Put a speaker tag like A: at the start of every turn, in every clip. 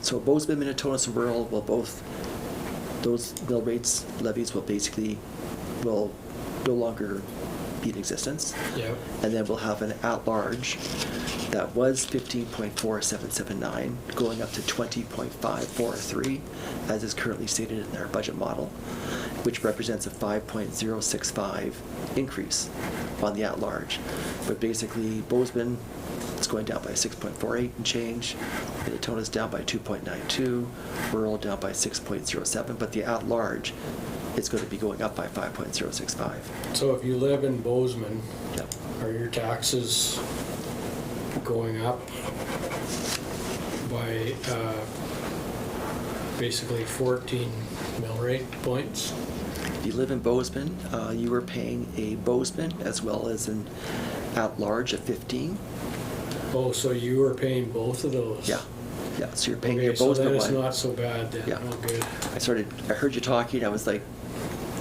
A: So Bozeman, Minnetonka, and rural will both, those mill rates levies will basically, will no longer be in existence.
B: Yeah.
A: And then we'll have an at-large that was fifteen point four seven seven nine, going up to twenty point five four three, as is currently stated in our budget model, which represents a five point zero six five increase on the at-large. But basically, Bozeman is going down by six point four eight and change, Minnetonka's down by two point nine two, rural down by six point zero seven, but the at-large is going to be going up by five point zero six five.
B: So if you live in Bozeman,
A: Yep.
B: are your taxes going up by uh, basically 14 mill rate points?
A: If you live in Bozeman, uh, you are paying a Bozeman as well as an at-large of 15.
B: Oh, so you are paying both of those?
A: Yeah, yeah, so you're paying your
B: Okay, so then
A: Bozeman
B: it's not
A: one.
B: so bad then.
A: Yeah.
B: Oh, good.
A: I started, I heard you talking, I was like,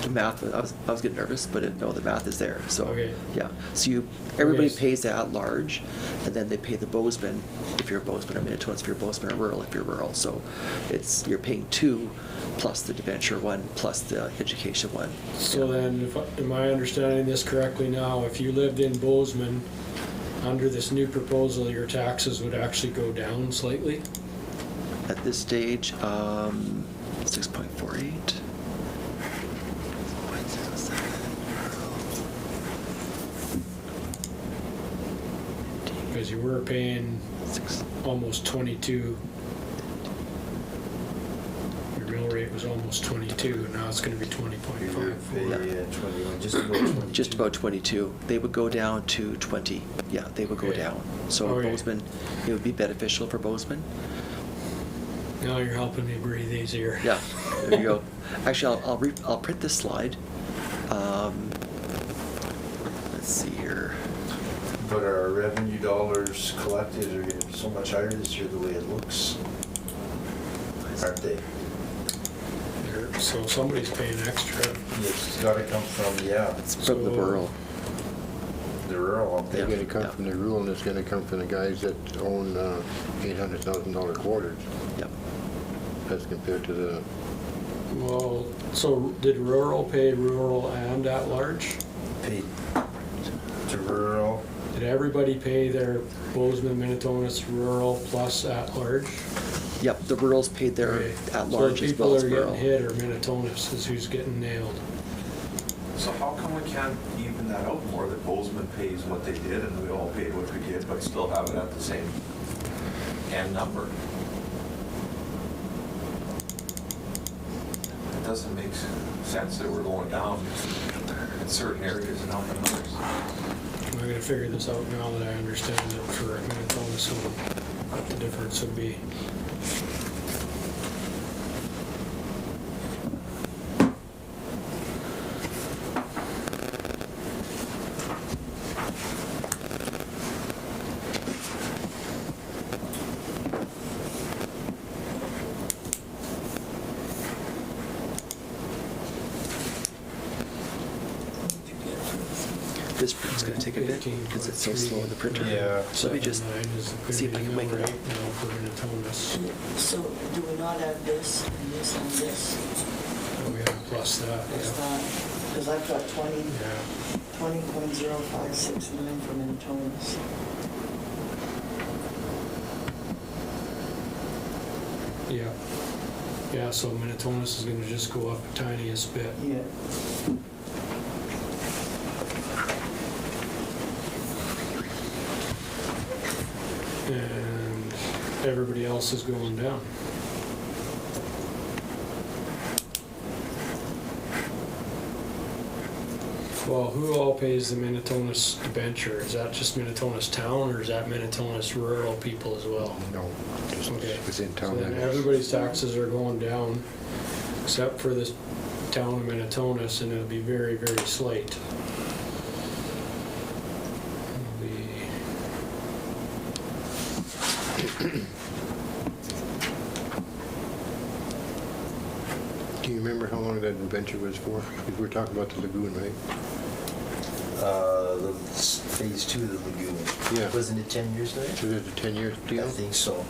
A: the math, I was, I was getting nervous, but it- no, the math is there, so.
B: Okay.
A: Yeah, so you, everybody
B: Okay.
A: pays the at-large, and then they pay the Bozeman if you're a Bozeman or Minnetonka, if you're Bozeman or rural, if you're rural. So it's, you're paying two plus the debenture one, plus the education one.
B: So then, if I- am I understanding this correctly now? If you lived in Bozeman, under this new proposal, your taxes would actually go down slightly?
A: At this stage, um, six point four eight.
B: Because you were paying
A: Six,
B: almost 22. Your mill rate was almost 22, and now it's going to be
C: We were
B: 20.54.
C: pretty, uh, 21, just about 22.
A: just about twenty-two. They would go down to twenty. Yeah, they would go
B: Okay.
A: down. So
B: Okay.
A: Bozeman, it would be beneficial for Bozeman.
B: Now you're helping me breathe easier.
A: uh, Yeah, there you go. Actually, I'll, I'll, re- I'll print this slide. Um, let's see here.
C: But our revenue dollars collected are gonna be so much higher this year, the way it looks, aren't they?
B: There- So somebody's paying extra.
C: It's gotta come from, yeah,
A: It's from the
B: So-
A: rural.
C: the rural, aren't
D: They're
C: they?
A: Yeah.
D: gonna come from the rule, and it's gonna come from the guys that own uh, $800,000 quarters,
A: Yep.
D: as compared to the,
B: Well, so did rural pay rural and at-large?
C: Paid to rural,
B: Did everybody pay their Bozeman, Minnetonka's rural plus at-large?
A: Yep, the rural's paid their
B: Okay.
A: at-large as well as
B: So the people that are
A: rural.
B: getting hit are Minnetonka's, is who's getting nailed.
E: So how come we can't even that out more, that Bozeman pays what they did and we all paid what we did, but still have it at the same end number? It doesn't make s- sense that we're going down in certain areas and up in others.
B: I'm gonna figure this out now that I understand it for a Minnetonka, so what the difference would be.
A: This print's gonna take a bit because it's so slow in the printer.
C: Yeah.
A: So let me just
B: Seven nine is the
A: see if I can
B: prevailing
A: make it
B: rate
A: up.
B: Now for Minnetonka's,
F: So do we not have this and this and this?
B: and we have plus that, yeah.
F: Because I've got 20,
B: Yeah,
F: 20.0569 from Antonis.
B: yeah. Yeah, so Minnetonka's is gonna just go up the tiniest bit.
F: Yeah.
B: and everybody else is going down. Well, who all pays the Minnetonka's debenture? Is that just Minnetonka's town or is that Minnetonka's rural people as well?
D: no, just
B: Okay.
D: within
B: So
D: town.
B: then
D: limits.
B: everybody's taxes are going down except for this town of Minnetonka's and it'll be very, very slight. It'll be
D: Do you remember how long that adventure was for? Because we're talking about the lagoon, right?
C: uh, the s- phase two of the lagoon.
D: Yeah.
C: Wasn't it 10 years later?
D: Was it a 10-year
C: I
D: deal?
C: think so.